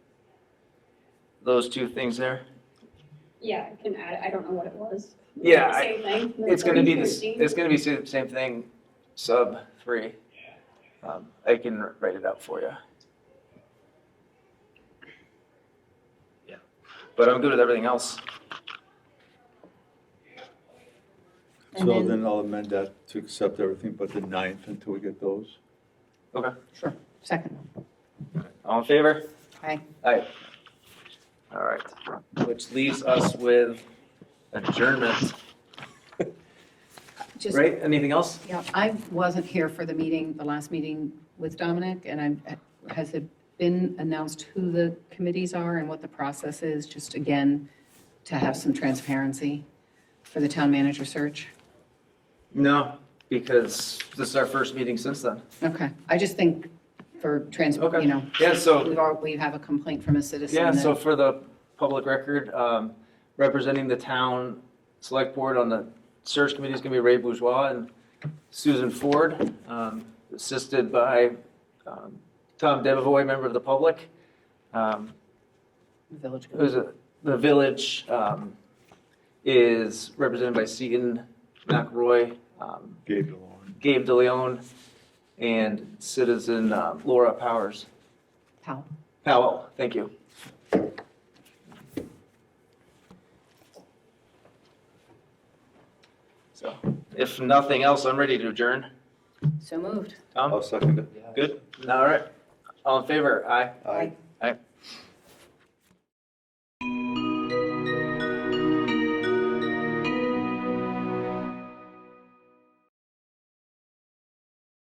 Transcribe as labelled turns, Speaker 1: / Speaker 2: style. Speaker 1: those two things there?
Speaker 2: Yeah, I can add, I don't know what it was.
Speaker 1: Yeah, I-
Speaker 2: Same thing.
Speaker 1: It's gonna be this,
Speaker 2: 13,
Speaker 1: it's gonna be the same thing, sub three. Um, I can write it out for you. Yeah, but I'm good with everything else.
Speaker 3: So
Speaker 4: And then,
Speaker 3: then I'll amend that to accept everything but the ninth until we get those.
Speaker 4: second,
Speaker 1: All in favor?
Speaker 4: Aye.
Speaker 1: Aye. All right, which leaves us with adjournment,
Speaker 4: just,
Speaker 1: right? Anything else?
Speaker 4: yeah, I wasn't here for the meeting, the last meeting with Dominic, and I, has it been announced who the committees are and what the process is? Just again, to have some transparency for the town manager search?
Speaker 1: No, because this is our first meeting since then.
Speaker 4: Okay, I just think for trans,
Speaker 1: Okay.
Speaker 4: you know,
Speaker 1: Yeah, so
Speaker 4: we've, al- we have a complaint from a citizen.
Speaker 1: Yeah,
Speaker 4: that-
Speaker 1: so for the public record, um, representing the town select board on the search committee is going to be Ray Bourgeois and Susan Ford, um, assisted by um, Tom Devoy, member of the public, um,
Speaker 4: Village.
Speaker 1: who's a- the village um, is represented by Seaton McRoy, um,
Speaker 3: Gabe DeLorme.
Speaker 1: Gabe DeLeon, and citizen uh, Laura Powers.
Speaker 4: Powell.
Speaker 1: Powell, thank you. So, if nothing else, I'm ready to adjourn.
Speaker 4: So moved.
Speaker 1: Tom,
Speaker 3: I'll second it.
Speaker 1: good? All right. All in favor? Aye.
Speaker 3: Aye.